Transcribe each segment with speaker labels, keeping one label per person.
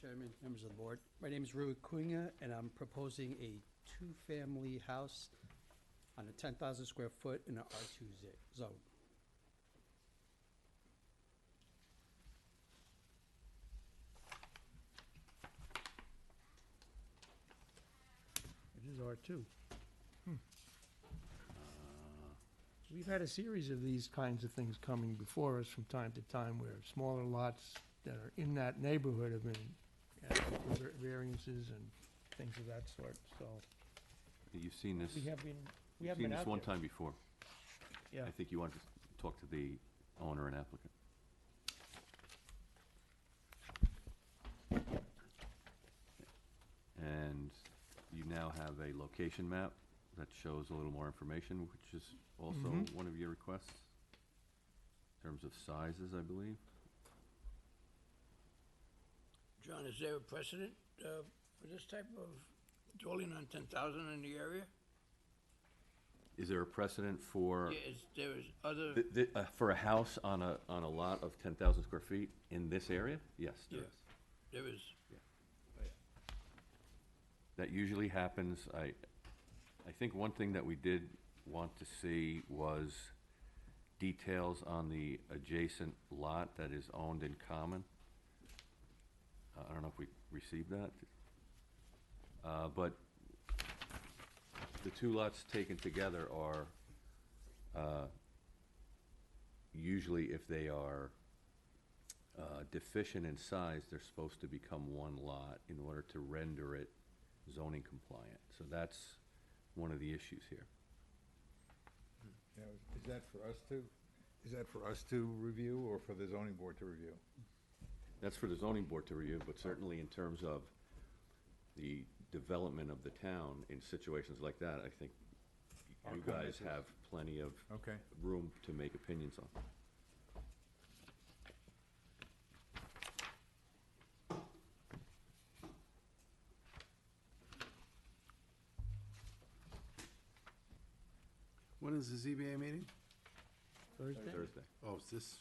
Speaker 1: Chairman, members of the board. My name is Rui Cunha, and I'm proposing a two-family house on a 10,000 square foot in an R2 z- zone.
Speaker 2: It is R2. We've had a series of these kinds of things coming before us from time to time where smaller lots that are in that neighborhood have been asked for var- variances and things of that sort, so
Speaker 3: Uh, You've seen this,
Speaker 2: we have been, we
Speaker 3: you've
Speaker 2: have
Speaker 3: seen
Speaker 2: been
Speaker 3: this
Speaker 2: out
Speaker 3: one
Speaker 2: there.
Speaker 3: time before.
Speaker 2: Yeah,
Speaker 3: I think you want to talk to the owner and applicant. And you now have a location map that shows a little more information, which is also
Speaker 2: Mhm.
Speaker 3: one of your requests, in terms of sizes, I believe.
Speaker 4: John, is there a precedent uh, for this type of dwelling on ten thousand in the area?
Speaker 3: Is there a precedent for,
Speaker 4: Yeah, is, there is other,
Speaker 3: th- th- uh, for a house on a, on a lot of 10,000 square feet in this area? Yes, there
Speaker 4: Yeah.
Speaker 3: is.
Speaker 4: there is,
Speaker 3: That usually happens. I, I think one thing that we did want to see was details on the adjacent lot that is owned in common. Uh, I don't know if we received that. Uh, but the two lots taken together are, uh, usually if they are uh, deficient in size, they're supposed to become one lot in order to render it zoning compliant. So that's one of the issues here.
Speaker 5: Now, is- is that for us to, is that for us to review or for the zoning board to review?
Speaker 3: That's for the zoning board to review, but certainly in terms of the development of the town in situations like that, I think you
Speaker 5: Okay.
Speaker 3: guys have plenty of
Speaker 5: Okay.
Speaker 3: room to make opinions on.
Speaker 6: When is the ZBA meeting?
Speaker 2: Thursday,
Speaker 3: Thursday.
Speaker 6: Oh, is this,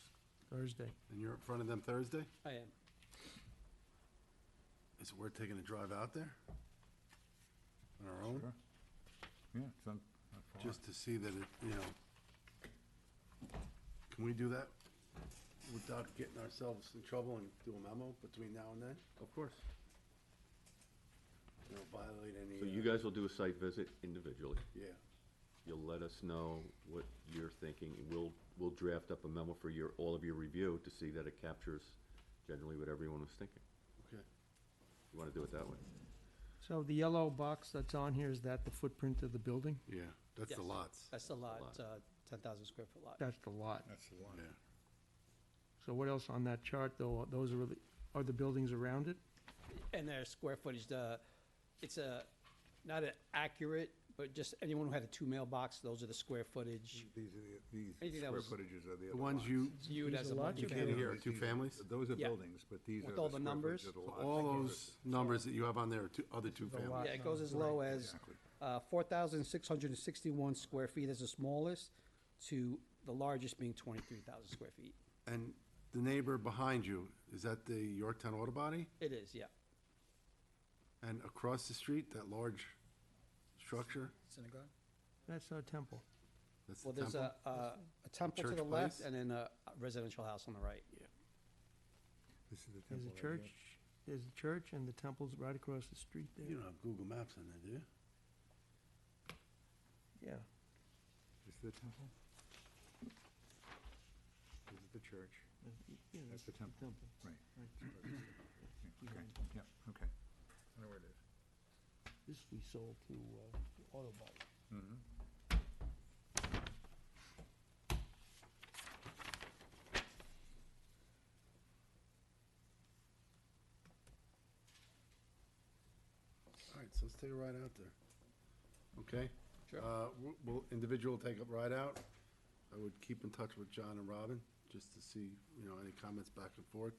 Speaker 2: Thursday.
Speaker 6: and you're in front of them Thursday?
Speaker 1: I am.
Speaker 6: Is it worth taking a drive out there? On our own?
Speaker 5: Sure. Yeah, it's not, not far.
Speaker 6: Just to see that it, you know. Can we do that without getting ourselves in trouble and do a memo between now and then?
Speaker 3: Of course.
Speaker 6: You know, violate any.
Speaker 3: So you
Speaker 6: uh,
Speaker 3: guys will do a site visit individually.
Speaker 6: Yeah,
Speaker 3: You'll let us know what you're thinking. We'll, we'll draft up a memo for your, all of your review to see that it captures generally what everyone was thinking.
Speaker 6: okay.
Speaker 3: You want to do it that way?
Speaker 2: So the yellow box that's on here, is that the footprint of the building?
Speaker 6: Yeah, that's the
Speaker 1: Yes.
Speaker 6: lots.
Speaker 1: That's a lot,
Speaker 3: lot.
Speaker 1: uh, 10,000 square foot lot.
Speaker 2: That's the lot.
Speaker 5: That's the one.
Speaker 6: Yeah.
Speaker 2: So what else on that chart, though? Those are, the- are the buildings around it?
Speaker 1: And their square footage, the, it's a, not an accurate, but just anyone who had a two mailbox, those are the square footage.
Speaker 5: These are the,
Speaker 1: Anything
Speaker 5: these
Speaker 1: that
Speaker 5: square
Speaker 1: was-
Speaker 5: footages are the other
Speaker 6: The ones you,
Speaker 1: Viewed
Speaker 2: These
Speaker 1: as
Speaker 2: are
Speaker 1: a
Speaker 2: large
Speaker 1: multi
Speaker 2: You
Speaker 5: Yeah,
Speaker 2: can't
Speaker 5: no,
Speaker 6: hear
Speaker 5: these-
Speaker 6: two
Speaker 5: these-
Speaker 6: families?
Speaker 5: Those are
Speaker 1: Yeah.
Speaker 5: buildings, but these
Speaker 1: With
Speaker 5: are
Speaker 1: all
Speaker 5: the
Speaker 1: the
Speaker 5: square
Speaker 1: numbers,
Speaker 5: footage of the
Speaker 6: so
Speaker 5: lot.
Speaker 6: all those numbers that you have on there are two, other two
Speaker 2: The lot
Speaker 6: families.
Speaker 1: Yeah, it goes as low as
Speaker 5: exactly.
Speaker 1: uh, 4,661 square feet is the smallest, to the largest being 23,000 square feet.
Speaker 6: And the neighbor behind you, is that the Yorktown Auto Body?
Speaker 1: It is, yeah.
Speaker 6: And across the street, that large structure,
Speaker 1: Synagogue?
Speaker 2: That's our temple.
Speaker 6: that's the
Speaker 1: Well, there's
Speaker 6: temple?
Speaker 1: a, a a temple to
Speaker 6: Church
Speaker 1: the left
Speaker 6: place?
Speaker 1: and then a residential house on the right.
Speaker 5: This is the temple.
Speaker 2: There's a
Speaker 5: right
Speaker 2: church,
Speaker 5: here.
Speaker 2: there's a church, and the temple's right across the street
Speaker 6: You
Speaker 2: there.
Speaker 6: don't have Google Maps on there, do you?
Speaker 2: Yeah,
Speaker 5: This is the temple? This is the church.
Speaker 2: uh, y- you know,
Speaker 5: That's the temple.
Speaker 2: temple.
Speaker 5: Right.
Speaker 2: Right.
Speaker 5: Yeah, Okay,
Speaker 2: Behind.
Speaker 5: yeah, okay. I know where it is.
Speaker 2: This we sold to uh, Auto Body.
Speaker 5: Mhm.
Speaker 6: All right, so let's take a ride out there. Okay?
Speaker 1: Sure.
Speaker 6: Uh, w- Will individual take a ride out? I would keep in touch with John and Robin, just to see, you know, any comments back and forth.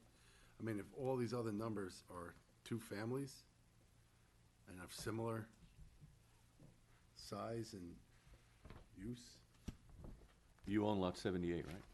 Speaker 6: I mean, if all these other numbers are two families and of similar size and use,
Speaker 3: You own lot seventy-eight, right?